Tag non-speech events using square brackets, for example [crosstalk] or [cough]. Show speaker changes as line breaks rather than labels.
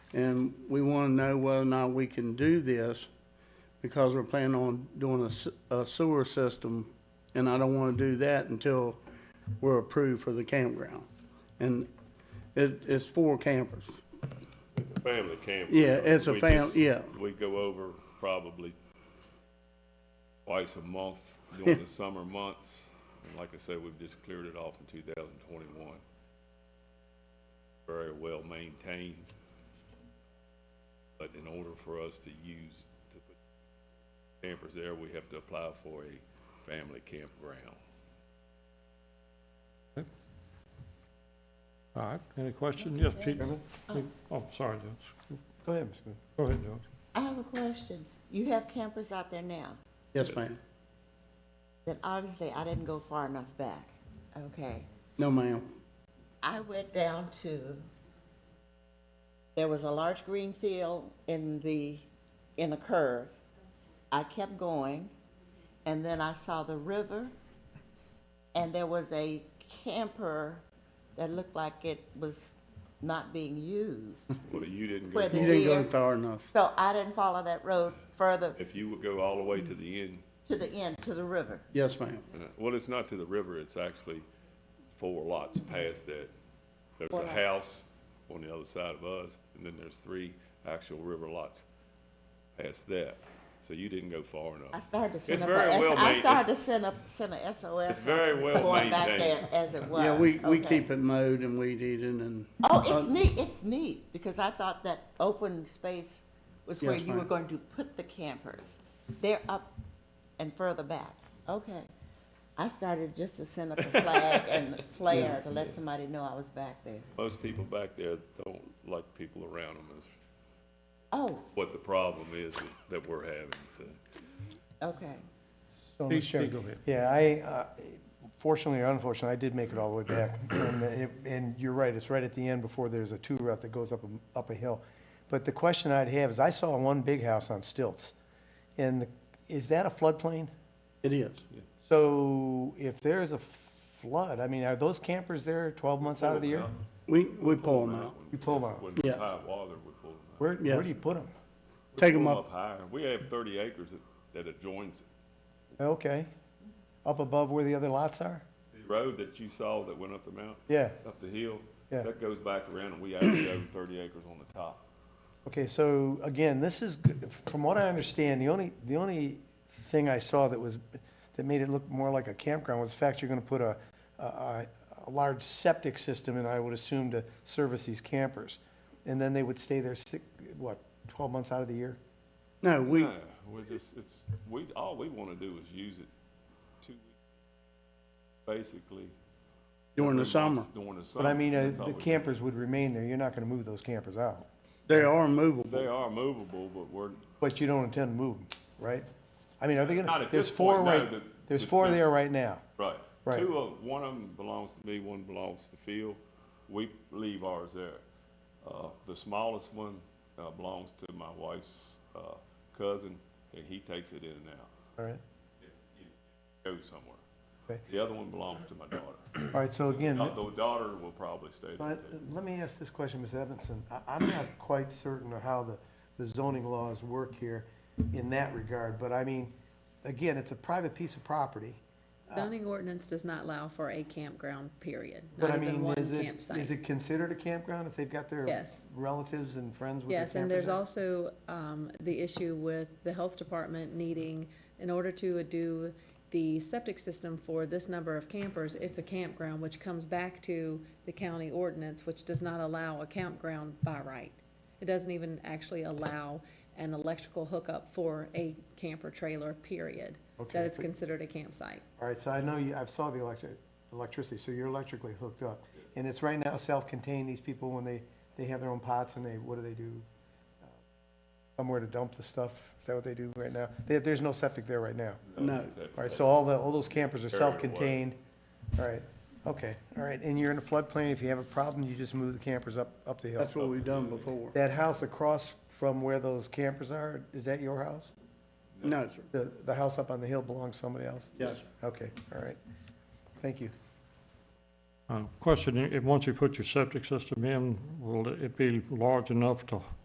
And we want to know whether or not we can do this because we're planning on doing a s- a sewer system. And I don't want to do that until we're approved for the campground. And it, it's four campers.
It's a family camper.
Yeah, it's a
We
fam-
just-
yeah.
We go over probably twice a month during
[laughs]
the summer months. And like I said, we've just cleared it off in two thousand twenty-one. Very well maintained. But in order for us to use, to put campers there, we have to apply for a family campground.
All right, any question? Yes, Pete? Oh, sorry, yes.
Go ahead, Ms. Good.
Go ahead, George.
I have a question. You have campers out there now,
Yes, ma'am.
then obviously I didn't go far enough back, okay?
No, ma'am.
I went down to, there was a large green field in the, in a curve. I kept going, and then I saw the river, and there was a camper that looked like it was not being used.
Well, you didn't go
Where the
You
far.
didn't go
deer-
far enough.
So I didn't follow that road further
If you would go all the way to the end,
to the end, to the river.
Yes, ma'am.
Uh, Well, it's not to the river, it's actually four lots past that. There's
Four
a
lots.
house on the other side of us, and then there's three actual river lots past that. So you didn't go far
I
enough.
started to send up, a
very
S-
well
I
made-
started to send up, send a SOS.
It's very well
Going back
maintained.
there as it was.
Yeah, we, we
Okay.
keep Uh, it mowed and weed eating and.
Oh, it's neat, it's neat, because I thought that open space was where
Yes,
you were
ma'am.
going to put the campers. They're up and further back, okay. I started just to send up a flag and
[laughs]
flare to let somebody know I was back there.
Most people back there don't like people around them is
Oh,
what the problem is that we're having, so.
okay,
So,
Please,
Mr. Chairman,
please go ahead.
Yeah, I, uh, fortunately or unfortunately, I did make it all the way back. And it- And you're right, it's right at the end before there's a two route that goes up, a- up a hill. But the question I'd have is, I saw one big house on stilts. And the- is that a floodplain?
It is.
So if there is a flood, I mean, are those campers there 12 months out of the year?
We, we pull them out.
You pull them out.
When
Yeah.
it's high water, we pull them out.
Where, where
Yes.
do you put them?
We
Take
pull
'em
'em
up.
higher. We have thirty acres that- that adjoins
Okay. Up above where the other lots are?
the road that you saw that went up the mountain.
Yeah.
up the hill.
Yeah.
That goes back around and we actually own thirty acres on the top.
Okay, so again, this is, g- from what I understand, the only, the only thing I saw that was, that made it look more like a campground was the fact you're gonna put a, a- a, a large septic system in, I would assume, to service these campers. And then they would stay there six, what, twelve months out of the year?
No, we,
No, we're just, it's, we, all we wanna do is use it two weeks, basically.
during the
every
summer.
month During the summer.
But I mean, uh,
That's all
the
we do.
campers would remain there, you're not gonna move those campers out,
They are
They
movable.
are movable, but we're,
but you don't intend to move them, right? I mean, are they
Not
gonna,
at
there's
this
four
point, no,
right,
the-
there's
the-
four
the-
there right now.
right.
Right.
Two of, one of them belongs to me, one belongs to Phil. We leave ours there. Uh, the smallest one, uh, belongs to my wife's, uh, cousin, and he takes it in and out,
All right,
goes somewhere.
Okay.
The other one belongs to my daughter.
all right, so again.
Uh, The daughter will probably stay there.
But uh,
too.
let me ask this question, Ms. Evanson. I- I'm not quite certain of how the the zoning laws work here in that regard, but I mean, again, it's a private piece of property. Uh,
Zoning ordinance does not allow for a campground, period,
But I
not even
mean,
one
is it, is
campsite.
it considered a campground if they've got their
Yes.
relatives and friends with their campers?
Yes, and there's
in?
also, um, the issue with the health department needing, in order to do the septic system for this number of campers, it's a campground, which comes back to the county ordinance, which does not allow a campground by right. It doesn't even actually allow an electrical hookup for a camper trailer, period, that
Okay.
it's considered a campsite.
All right, so I know you, I've saw the electric, electricity, so you're electrically hooked up. And it's right now self-contained, these people, when they, they have their own pots and they, what do they do? Uh, Somewhere to dump the stuff, is that what they do right now? There, there's no septic there right now.
No.
All right, so all the, all those campers are
Carry it away.
self-contained. All right, okay, all right, and you're in a floodplain, if you have a problem, you just move the campers up, up the hill.
That's what we've done before.
That house across from where those campers are, is that your house?
No, sir.
The, the house up on the hill belongs to somebody else?
Yes.
Okay, all right, thank you.
Uh, Question, i- if, once you put your septic system in, will it be large enough to